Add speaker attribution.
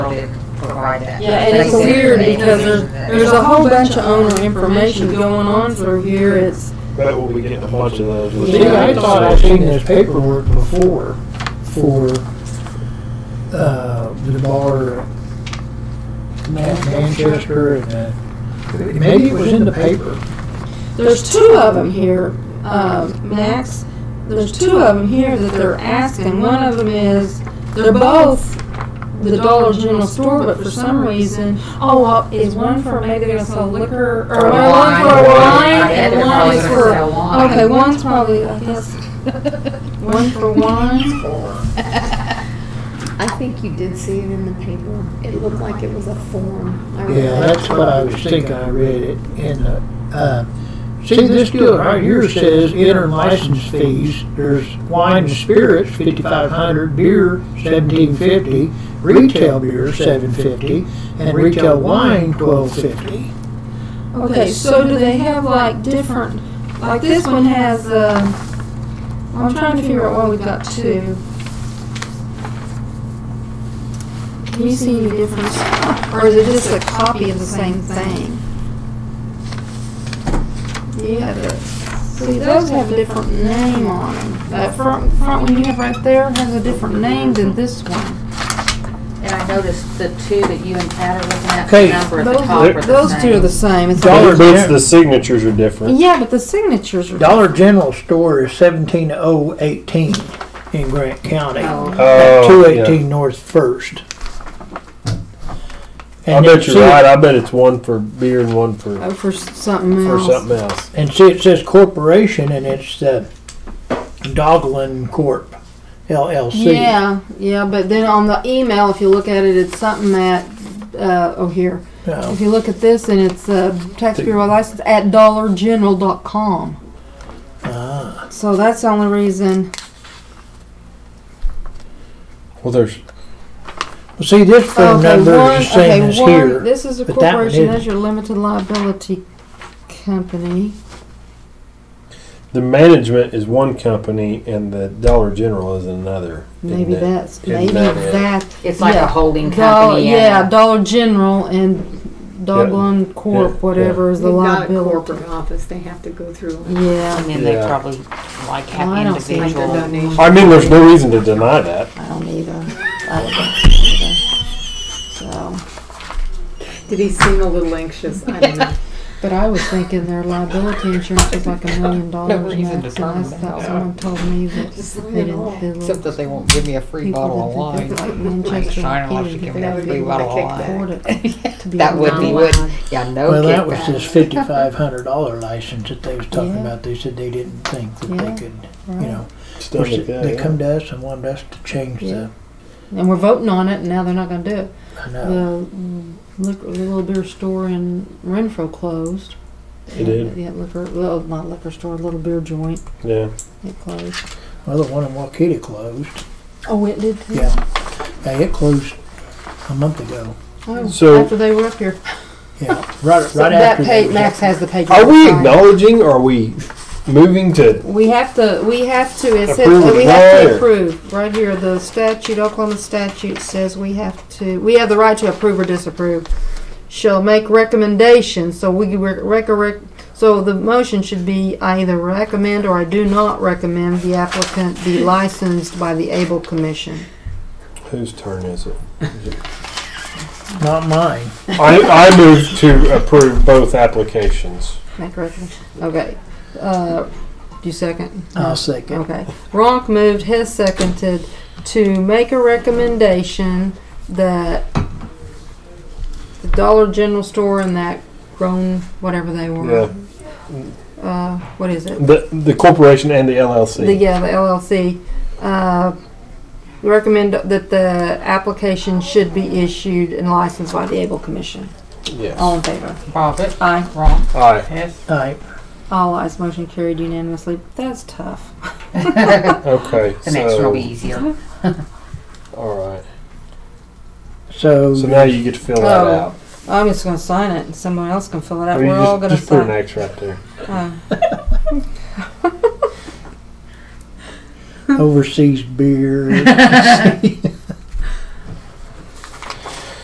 Speaker 1: provide that.
Speaker 2: Yeah,
Speaker 3: And it's
Speaker 1: They said
Speaker 3: weird
Speaker 1: they
Speaker 3: because
Speaker 1: didn't
Speaker 3: there's,
Speaker 1: do that.
Speaker 3: there's a whole bunch of owner information going on through here. It's,
Speaker 4: Bet we'll be getting a bunch of those. with-
Speaker 5: See, I thought I'd seen this paperwork before for, uh, the bar at Man- Manchester and, uh, maybe it was in the paper.
Speaker 3: there's two of them here, uh, Max. There's two of them here that they're asking. One of them is, they're both the Dollar General store, but for some reason, oh, well, is one for maybe they're gonna sell liquor, or
Speaker 1: Or
Speaker 3: one
Speaker 1: wine.
Speaker 3: for
Speaker 1: I
Speaker 3: wine,
Speaker 1: bet
Speaker 3: and
Speaker 1: they're
Speaker 3: one
Speaker 1: probably
Speaker 3: is
Speaker 1: gonna
Speaker 3: for,
Speaker 1: sell wine.
Speaker 3: okay, one's probably, I guess, one for wine.
Speaker 2: I think you did see it in the paper. It looked like it was a form. I read
Speaker 5: Yeah,
Speaker 2: that.
Speaker 5: that's what I was thinking, I read it in the, uh, see, this deal right here says enter license fees. There's wine and spirits, fifty-five hundred, beer, seventeen fifty, retail beer, seven fifty, and retail wine, twelve fifty.
Speaker 3: Okay, so do they have like different, like this one has, um, I'm trying to figure out why we've got two. Can you see any difference, or is it just a copy of the same thing? You have it, see, those have a different name on them. That front, front one you have right there has a different name than this one.
Speaker 1: And I noticed the two that you and Pat are looking at, the
Speaker 5: Okay.
Speaker 1: number at the
Speaker 3: Those-
Speaker 1: top are the
Speaker 3: Those two are
Speaker 1: same.
Speaker 3: the same. It's
Speaker 5: Dollar
Speaker 3: like-
Speaker 5: Gen-
Speaker 4: But the signatures are different.
Speaker 3: Yeah, but the signatures are.
Speaker 5: Dollar General store is seventeen oh eighteen in Grant County.
Speaker 1: Oh.
Speaker 5: Two
Speaker 4: Oh, yeah.
Speaker 5: eighteen North First.
Speaker 4: I
Speaker 5: And then
Speaker 4: bet you're
Speaker 5: see-
Speaker 4: right. I bet it's one for beer and one for,
Speaker 3: Oh, for something
Speaker 4: for
Speaker 3: else.
Speaker 4: something else.
Speaker 5: And see, it says corporation and it's the Doglin Corp LLC.
Speaker 3: Yeah, yeah, but then on the email, if you look at it, it's something that, uh, oh, here.
Speaker 5: No.
Speaker 3: If you look at this and it's, uh, tax bureau license at dollargeneral.com.
Speaker 5: Ah.
Speaker 3: So that's the only reason.
Speaker 4: Well, there's
Speaker 5: Well, see, this phone number is the same as here.
Speaker 3: This is a
Speaker 5: but that one
Speaker 3: corporation, that's
Speaker 5: isn't.
Speaker 3: your limited liability company.
Speaker 4: the management is one company and the Dollar General is another. isn't
Speaker 3: Maybe
Speaker 4: it?
Speaker 3: that's,
Speaker 4: Isn't
Speaker 3: maybe
Speaker 4: that it?
Speaker 3: that.
Speaker 1: It's like
Speaker 3: yeah.
Speaker 1: a holding
Speaker 3: Dol-
Speaker 1: company. and
Speaker 3: Yeah, Dollar General and Doglin
Speaker 4: yeah.
Speaker 3: Corp, whatever is the
Speaker 2: They've got a
Speaker 3: liability.
Speaker 2: corporate office they have to go through.
Speaker 3: Yeah.
Speaker 1: And then they
Speaker 4: Yeah.
Speaker 1: probably like have
Speaker 3: Well, I don't see
Speaker 2: Like
Speaker 1: individual.
Speaker 2: their donation.
Speaker 4: I mean, there's no reason to deny that.
Speaker 3: I don't either. I don't either. So,
Speaker 2: Did he seem a little anxious? I don't know.
Speaker 3: but I was thinking their liability insurance was like a million dollars. and
Speaker 6: reason
Speaker 3: that-
Speaker 6: to sign
Speaker 3: and
Speaker 6: that.
Speaker 3: That's someone told me that
Speaker 2: Just sign
Speaker 3: they
Speaker 2: it
Speaker 3: didn't
Speaker 2: all.
Speaker 3: feel
Speaker 6: Except that they won't give me a free bottle of
Speaker 3: people
Speaker 6: wine.
Speaker 3: that think they're like Manchester
Speaker 6: Sign unless
Speaker 3: Kid,
Speaker 6: you give
Speaker 3: they
Speaker 6: me a
Speaker 3: would
Speaker 6: free
Speaker 3: be
Speaker 6: bottle of
Speaker 3: able to
Speaker 6: wine.
Speaker 3: afford it to be
Speaker 6: That would
Speaker 3: able
Speaker 6: be
Speaker 3: to-
Speaker 6: good. Yeah, no
Speaker 5: well, that was
Speaker 6: kickback.
Speaker 5: this fifty-five hundred dollar license that they was talking
Speaker 3: Yeah.
Speaker 5: about. They said they didn't think that
Speaker 3: Yeah.
Speaker 5: they could, you know.
Speaker 4: Stuff
Speaker 5: Of course,
Speaker 4: like that,
Speaker 5: they
Speaker 4: yeah.
Speaker 5: come to us and wanted us to change
Speaker 3: And we're voting on it, and now they're not gonna do it.
Speaker 5: the. I
Speaker 3: The
Speaker 5: know.
Speaker 3: mm, liquor, the little beer store in Renfro closed.
Speaker 4: It did.
Speaker 3: Yeah, liquor, little, not liquor store, little beer joint,
Speaker 4: Yeah.
Speaker 3: it closed.
Speaker 5: Well, the one in Waukeeta closed.
Speaker 3: Oh, it did too?
Speaker 5: Yeah. Yeah, it closed a month ago.
Speaker 3: Oh,
Speaker 4: So-
Speaker 3: After they were up here.
Speaker 5: Yeah, right,
Speaker 3: So
Speaker 5: right
Speaker 3: that
Speaker 5: after.
Speaker 3: page,
Speaker 5: they-
Speaker 3: Max has the page.
Speaker 4: Are we
Speaker 3: Sorry.
Speaker 4: acknowledging? Or are we moving to?
Speaker 3: We have to, we have to, it says,
Speaker 4: Approve it
Speaker 3: we have
Speaker 4: right.
Speaker 3: to approve, right here, the statute, Oklahoma statute says we have to, we have the right to approve or disapprove. Shall make recommendations, so we, could rec- rec- rec- so the motion should be I either recommend or I do not recommend the applicant be licensed by the ABLE Commission.
Speaker 4: Whose turn is it?
Speaker 5: Not mine.
Speaker 4: I, I move to approve both applications.
Speaker 3: Make recommend, okay, uh, do you second?
Speaker 5: I'll second.
Speaker 3: Okay. Ronk moved, Hess seconded to make a recommendation that the Dollar General store and that grown, whatever they
Speaker 4: Yeah.
Speaker 3: were, uh, what is it?
Speaker 4: The the corporation and the LLC.
Speaker 3: The, yeah, the LLC, uh, recommend that the application should be issued and licensed by the Able Commission.
Speaker 4: Yes.
Speaker 3: All in favor?
Speaker 6: Profit,
Speaker 3: Aye.
Speaker 6: wrong,
Speaker 4: Aye.
Speaker 6: yes.
Speaker 5: All right.
Speaker 3: All ayes, motion carried unanimously. That's tough.
Speaker 4: Okay.
Speaker 6: The next one will be
Speaker 4: so-
Speaker 6: easier.
Speaker 4: All right.
Speaker 5: So,
Speaker 4: So now you get to fill that
Speaker 3: Oh.
Speaker 4: out.
Speaker 3: I'm just gonna sign it and someone else can fill it out.
Speaker 4: Or you
Speaker 3: We're
Speaker 4: just,
Speaker 3: all gonna
Speaker 4: just put an
Speaker 3: sign.
Speaker 4: X right there.
Speaker 3: Uh,
Speaker 5: overseas beer.